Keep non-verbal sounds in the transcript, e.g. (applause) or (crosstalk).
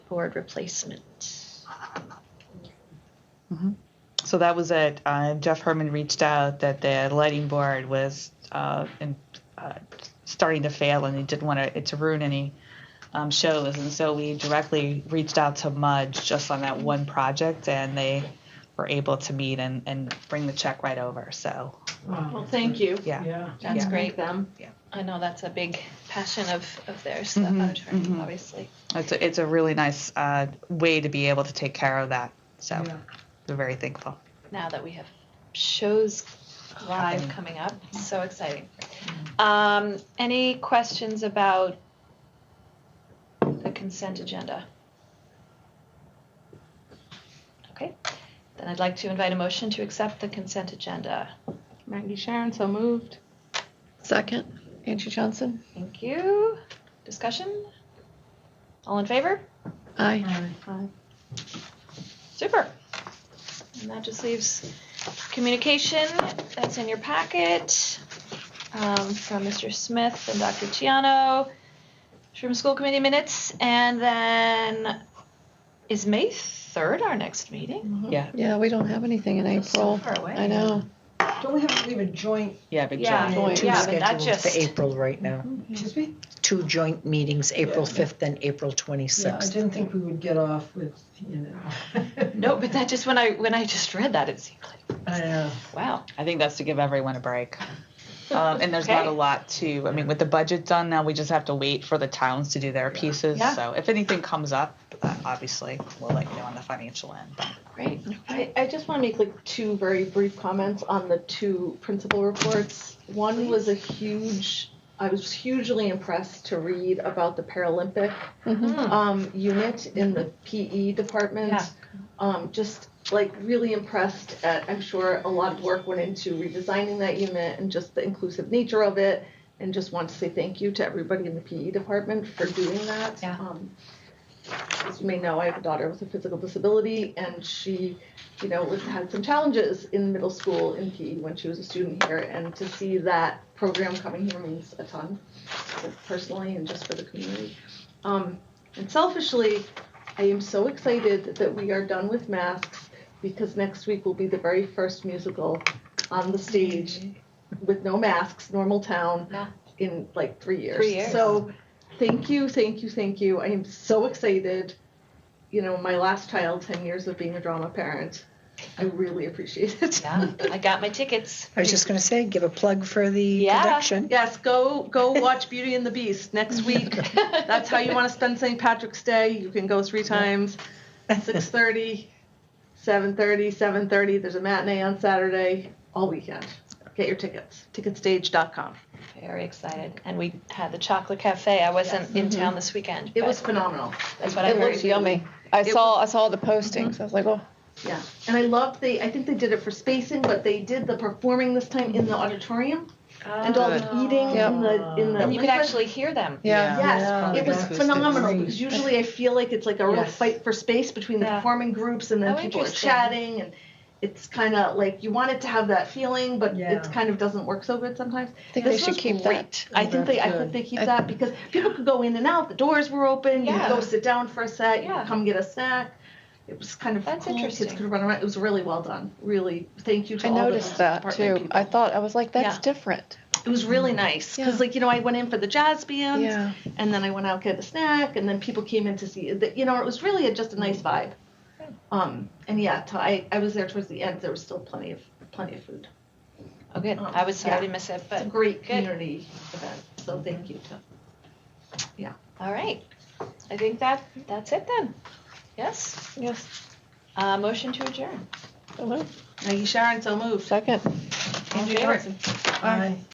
board replacement. So that was it. Uh, Jeff Herman reached out that the lighting board was uh, in, uh, starting to fail and he didn't want to, it to ruin any um, shows. And so we directly reached out to Mudge just on that one project and they were able to meet and, and bring the check right over. So, Well, thank you. yeah. Yeah. That's Yeah. great. Them. Yeah. I know that's a big passion of, of theirs, the Mhm, auditorium, mhm. obviously. It's a, it's a really nice uh, way to be able to take care of that. So Yeah. we're very thankful. Now that we have shows live Happening. coming up, it's so exciting. Um, any questions about the consent agenda? Okay, then I'd like to invite a motion to accept the consent agenda. Maggie Sharon, so moved. Second, Angie Johnson. Thank you. Discussion? All in favor? Aye. Super. And that just leaves communication that's in your packet um, from Mr. Smith and Dr. Chiano, from school committee minutes, and then is May 3rd our next meeting? Mm-hmm. Yeah, we don't have anything in Feels so April. far away. I know. Don't we have to leave a joint, Yeah, big Yeah, job. joint. yeah, but that scheduled just, for April right now. excuse me? Two joint meetings, April 5th and April Yeah, I 26th. didn't think we would get off with, you (laughs) know. no, but that just, when I, when I just read that, it seemed like, I know. wow. I think that's to give everyone a break. (laughs) Um, and there's not Okay. a lot to, I mean, with the budget done now, we just have to wait for the towns to do their pieces. Yeah. So if anything comes up, uh, obviously, we'll let you know on the financial end. But Great. I, I just want to make like two very brief comments on the two principal reports. One was a huge, I was hugely impressed to read about the Paralympic Mm-hmm. Mhm. um, unit in the PE department. Yeah. Um, just like really impressed at, I'm sure a lot of work went into redesigning that unit and just the inclusive nature of it. And just want to say thank you to everybody in the PE department for doing that. Yeah. Um, as you may know, I have a daughter with a physical disability, and she, you know, was, had some challenges in middle school in PE when she was a student here. And to see that program coming here means a ton, personally and just for the community. Um, and selfishly, I am so excited that we are done with masks because next week will be the very first musical on the stage with no masks, normal town, Yeah. in like three years. Three years. So thank you, thank you, thank you. I am so excited. You know, my last child, 10 years of being a drama parent, I really appreciate it. Yeah, I got my tickets. I was just going to say, give a plug for the Yeah. production. Yes, go go watch Beauty and the Beast next week. (laughs) That's how you want to spend St. Patrick's Day. You can go three times. 6.30, 7.30, 7.30. There's a matinee on Saturday all weekend. Get your tickets. Ticketstage.com. Very excited. And we had the chocolate cafe. I wasn't in town this weekend. Mm-hmm. It but was phenomenal. That's what I It heard. looks yummy. I It Mm-hmm. saw, I saw the postings. I was like, oh, Yeah. And I loved the, I think they did it for spacing, but they did the performing this time in the auditorium and all Oh. the eating Yep. in the, in the. And you could liquor. actually hear them. yeah. Yes, Yeah. it was Acoustic. phenomenal Great. because usually I feel like it's like a real Yes. fight for space between the Yeah. performing groups and then Oh, people are interesting. chatting and it's kind of like you want it to have that feeling, but Yeah. it kind of doesn't work so good sometimes. I think they This should was keep that. great. Oh, I think they, I That's hope they keep I- that because people could go in and out. The doors were open. You Yeah. could go sit down for a set. You Yeah. could come get a snack. It was kind of That's cool. Kids interesting. could run around. It was really well done. Really, thank you to I all the noticed that department too. Mm-hmm. people. I thought, I was like, that's Yeah. different. it was really nice because, Yeah. like you know, I went in for the jazz band Yeah. and then I went out get a snack, and then people came in to see. that- You know, it was really a, just a nice vibe. Um, and yeah, t- I I was there towards the end. There was still plenty of plenty of food. Oh, good. Um, I was sorry yeah. to miss it, It's a but great good. community event. So thank you to all right. I think that that's it then. Yes. Yes. Uh, motion to adjourn. Hello. Maggie Sharon. So moved. Second. All in Andrew favor? Johnson. Aye.